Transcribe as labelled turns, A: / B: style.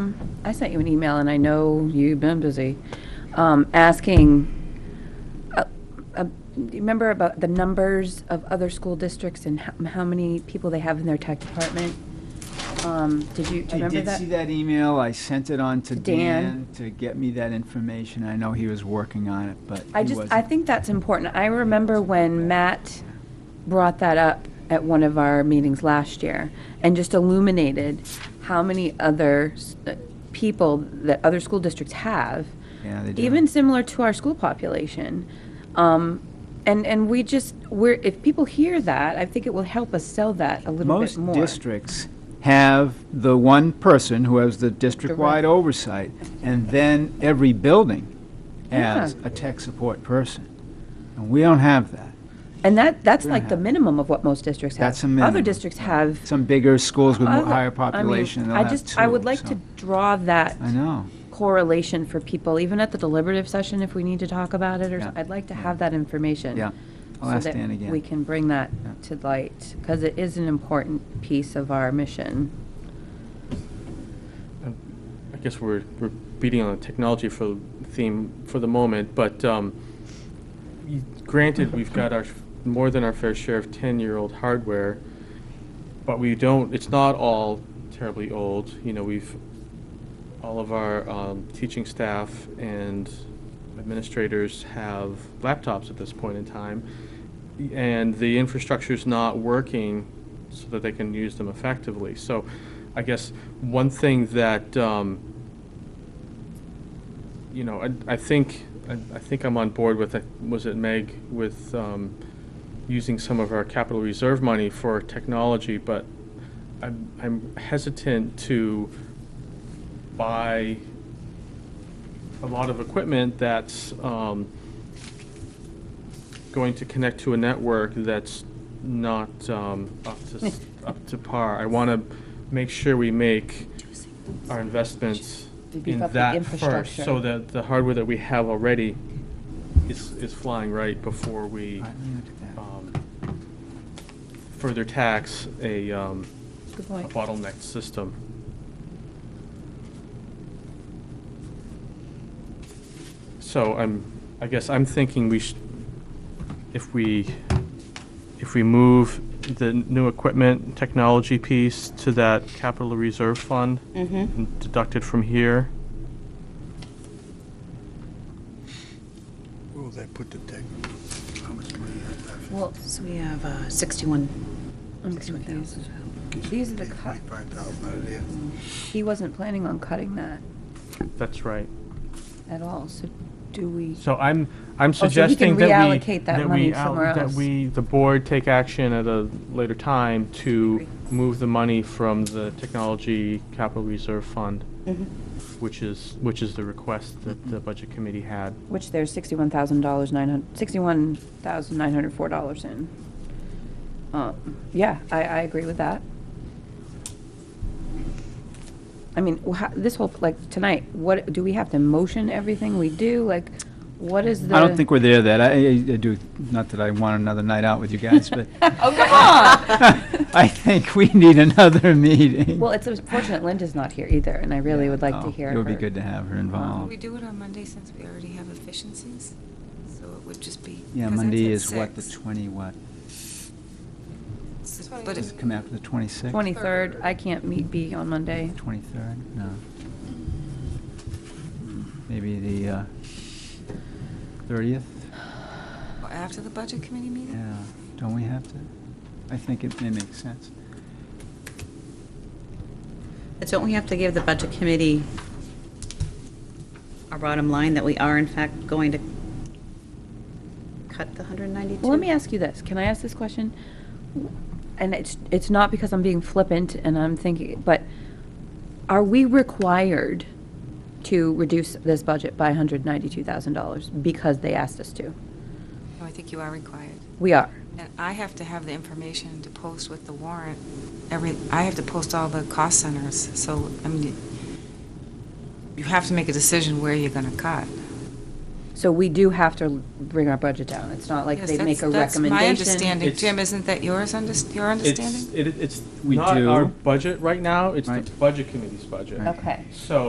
A: Um, I sent you an email, and I know you've been busy, um, asking, uh, uh, do you remember about the numbers of other school districts and how how many people they have in their tech department? Um, Did you, do you
B: I
A: remember
B: did see
A: that?
B: that email. I sent it on to
A: To Dan.
B: Dan to get me that information. I know he was working on it, but
A: I
B: he
A: just, I
B: wasn't.
A: think that's important. I remember when Matt brought that up at one of our meetings last year, and just illuminated how many other s- uh, people that other school districts have,
B: Yeah, they do.
A: even similar to our school population. Um, and, and we just, we're, if people hear that, I think it will help us sell that a little bit
B: Most
A: more.
B: districts have the one person who has the district-wide oversight, and then every building has
A: Yeah.
B: a tech support person. And we don't have that.
A: And that, that's
B: We're
A: like the
B: not-
A: minimum of what most districts have.
B: That's a minimum.
A: Other districts have.
B: Some bigger schools with more-
A: other- I
B: higher
A: mean,
B: population, they'll
A: I
B: have
A: just, I would
B: two,
A: like
B: so-
A: to draw that
B: I know.
A: correlation for people, even at the deliberative session, if we need to talk about it, or,
B: Yeah.
A: so- I'd like to have that information.
B: Yeah. I'll ask Dan
A: So that we
B: again.
A: can bring that
B: Yeah.
A: to light, because it is an important piece of our mission.
C: I guess we're, we're beating on the technology for theme for the moment, but um, y- granted, we've got our, more than our fair share of 10-year-old hardware, but we don't, it's not all terribly old. You know, we've, all of our um, teaching staff and administrators have laptops at this point in time, and the infrastructure's not working so that they can use them effectively. So I guess one thing that, um, you know, I, I think, I, I think I'm on board with, uh, was it Meg, with um, using some of our capital reserve money for technology, but I'm, I'm hesitant to buy a lot of equipment that's um, going to connect to a network that's not um, up to, s- up to par. I want to make sure we make our investments
A: To beef
C: in
A: up the
C: that first,
A: infrastructure.
C: so that the hardware that we have already is, is flying right before we
B: All right, let me look at that.
C: um, further tax a um,
A: Good
C: a
A: point.
C: bottlenecked system. So I'm, I guess I'm thinking we should, if we, if we move the new equipment technology piece to that capital reserve fund
D: Mm-hmm.
C: and deduct it from here,
E: Where will that put the tech? How much money is that?
A: Well,
D: So we have uh, 61.
A: I'm
D: 61,000.
A: confused. These are the cut,
E: Twenty-five thousand out of there.
A: he wasn't planning on cutting that
C: that's right.
A: at all, so do we,
C: So I'm, I'm
A: Oh, so he can
C: suggesting that we.
A: reallocate that
C: we
A: money
C: al-
A: somewhere else.
C: That we, the board, take action at a later time to move the money from the technology capital reserve fund,
A: Mm-hmm.
C: which is, which is the request that the budget committee had.
A: which there's sixty-one thousand dollars, nine hundred, sixty-one thousand nine hundred four dollars in. Uh, Yeah, I, I agree with that. I mean, wh- how- this whole, like, tonight, what, do we have to motion everything we do? Like, what is the?
B: I don't think we're there that, I, I I do, not that I want another night out with you guys, but
A: Oh, come on!
B: I think we need another meeting.
A: Well, it's unfortunate Linda's not here either, and I really would like
B: Oh,
A: to hear
B: It would be
A: her.
B: good to have her
F: Can we
B: involved.
F: do it on Monday since we already have efficiencies? So it would just be.
B: Yeah,
F: 'cause that's
B: Monday
F: at
B: is what, the
F: six.
B: 20 what?
F: S-
G: Twenty.
F: But
B: Does
F: it,
B: it come after the 26th?
A: Twenty-third, I can't meet B on Monday.
B: 23rd? No. Maybe the uh, 30th?
F: after the budget committee meeting?
B: Yeah, don't we have to? I think it may make sense.
D: But Don't we have to give the budget committee our bottom line that we are in fact going to cut the 192?
A: Well, let me ask you this. Can I ask this question? And it's, it's not because I'm being flippant and I'm thinking, but are we required to reduce this budget by $192,000 because they asked us to?
F: No, I think you are required.
A: We are.
F: And I have to have the information to post with the warrant. Every, I have to post all the cost centers, so, I mean, you have to make a decision where you're gonna cut.
A: So we do have to bring our budget down. It's not like
F: Yes,
A: they
F: that's-
A: make a
F: that's
A: recommendation.
F: my understanding.
C: It's-
F: Jim, isn't that yours, unders- your understanding?
C: It's, it- it's
B: We
C: not
B: do.
C: our budget right now, it's the
B: Right.
C: budget committee's budget.
A: Okay.
C: So